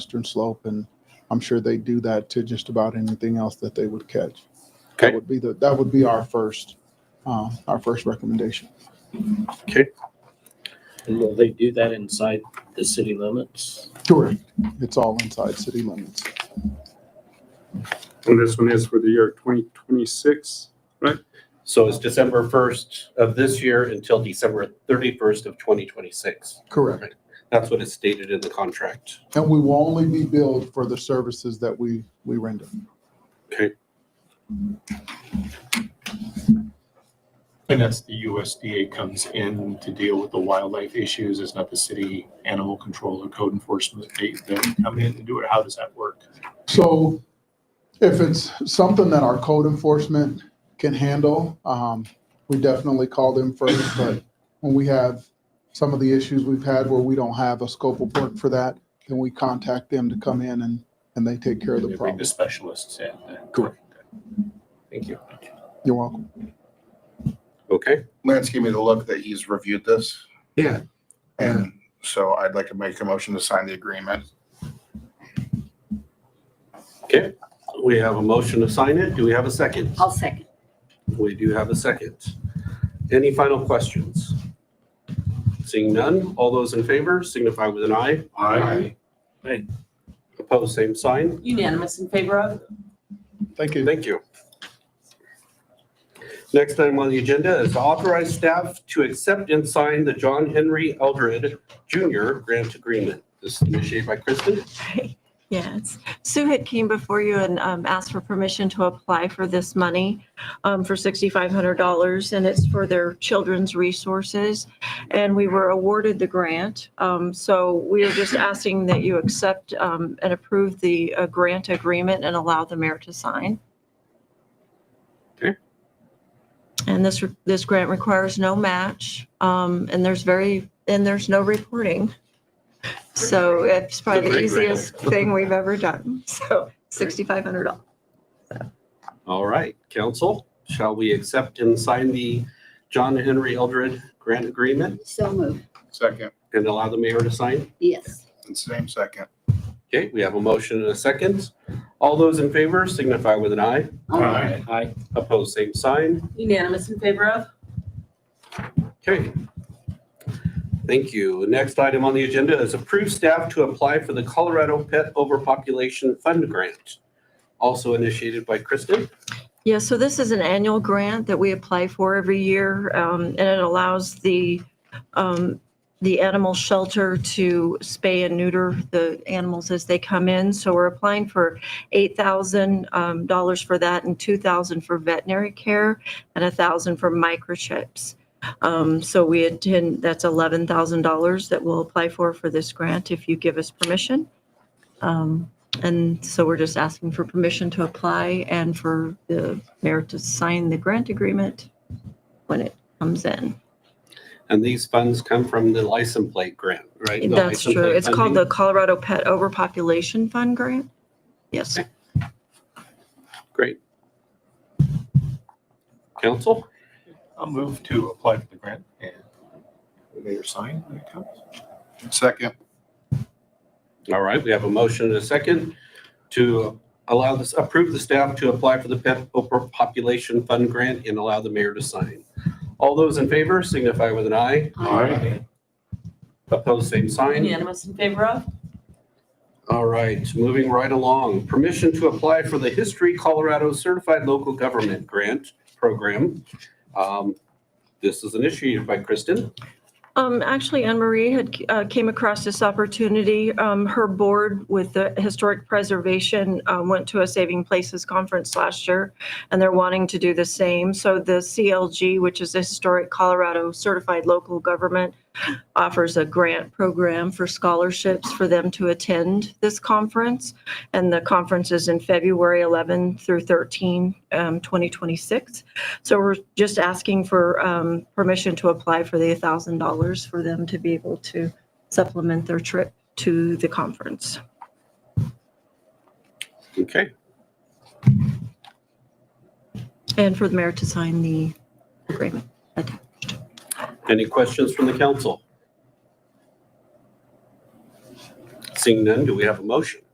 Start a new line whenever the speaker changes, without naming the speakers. Western Slope, and I'm sure they do that to just about anything else that they would catch. That
Okay.
would be the, that would be our first, uh, our first recommendation.
And will they do that inside the city limits?
Correct. It's all inside city limits.
And this one is for the year 2026.
So it's December 1st of this year until December 31st of 2026.
Correct.
That's what is stated in the contract.
And we will only be billed for the services that we, we render.
And that's the USDA comes in to deal with the wildlife issues. It's not the city animal control or code enforcement. They, they come in and do it. How does that work?
So if it's something that our code enforcement can handle, um, we definitely call them first. But when we have some of the issues we've had where we don't have a scope of work for that, then we contact them to come in and, and they take care of
They
the
bring
problem.
the specialists in.
Correct.
Thank you.
You're welcome.
Okay,
Lance gave me the look that he's reviewed this.
Yeah.
And so I'd like to make a motion to sign the agreement.
we have a motion to sign it. Do we have a second?
I'll second.
We do have a second. Any final questions? Seeing none, all those in favor signify with an eye.
Aye.
Aye. Opposed, same sign.
Unanimous in favor of?
Thank you.
Thank you. Next item on the agenda is to authorize staff to accept and sign the John Henry Eldred Jr. Grant Agreement. This is initiated by Kristen.
Yes. Sue had came before you and um, asked for permission to apply for this money um, for $6,500, and it's for their children's resources. And we were awarded the grant. Um, So we are just asking that you accept um, and approve the uh, grant agreement and allow the mayor to sign.
Okay.
And this, this grant requires no match, um, and there's very, and there's no reporting. So it's probably the
It's a great
easiest thing we've ever done. So sixty-five hundred dollars.
All right, council, shall we accept and sign the John Henry Eldred Grant Agreement
So moved.
Second,
and allow the mayor to sign?
Yes.
and same second.
Okay, we have a motion and a second. All those in favor signify with an eye.
Aye.
Aye.
Opposed, same sign.
Unanimous in favor of?
Okay. Thank you. The Next item on the agenda is approve staff to apply for the Colorado Pet Overpopulation Fund Grant, also initiated by Kristen.
Yeah, so this is an annual grant that we apply for every year, um, and it allows the, um, the animal shelter to spay and neuter the animals as they come in. So we're applying for eight thousand um, dollars for that and two thousand for veterinary care and a thousand for microchips. Um, So we intend, that's eleven thousand dollars that we'll apply for, for this grant if you give us permission. Um, and so we're just asking for permission to apply and for the mayor to sign the grant agreement when it comes in.
And these funds come from the license plate grant, right? The
That's
license
true.
plate
It's called the
funding.
Colorado Pet Overpopulation Fund Grant. Yes.
Great. Council,
I'll move to apply for the grant and the mayor sign when it comes.
Second,
all right, we have a motion and a second to allow this, approve the staff to apply for the Pet Overpopulation Fund Grant and allow the mayor to sign. All those in favor signify with an eye.
Aye.
Opposed, same sign.
Unanimous in favor of?
All right, moving right along. Permission to apply for the History Colorado Certified Local Government Grant Program. Um, This is initiated by Kristen.
Um, actually, Anne Marie had, uh, came across this opportunity. Um, her board with the Historic Preservation, um, went to a Saving Places conference last year, and they're wanting to do the same. So the CLG, which is the Historic Colorado Certified Local Government, offers a grant program for scholarships for them to attend this conference. And the conference is in February 11 through 13, um, 2026. So we're just asking for um, permission to apply for the $1,000 for them to be able to supplement their trip to the conference.
Okay.
And for the mayor to sign the agreement.
Any questions from the council? Seeing none, do we have a motion?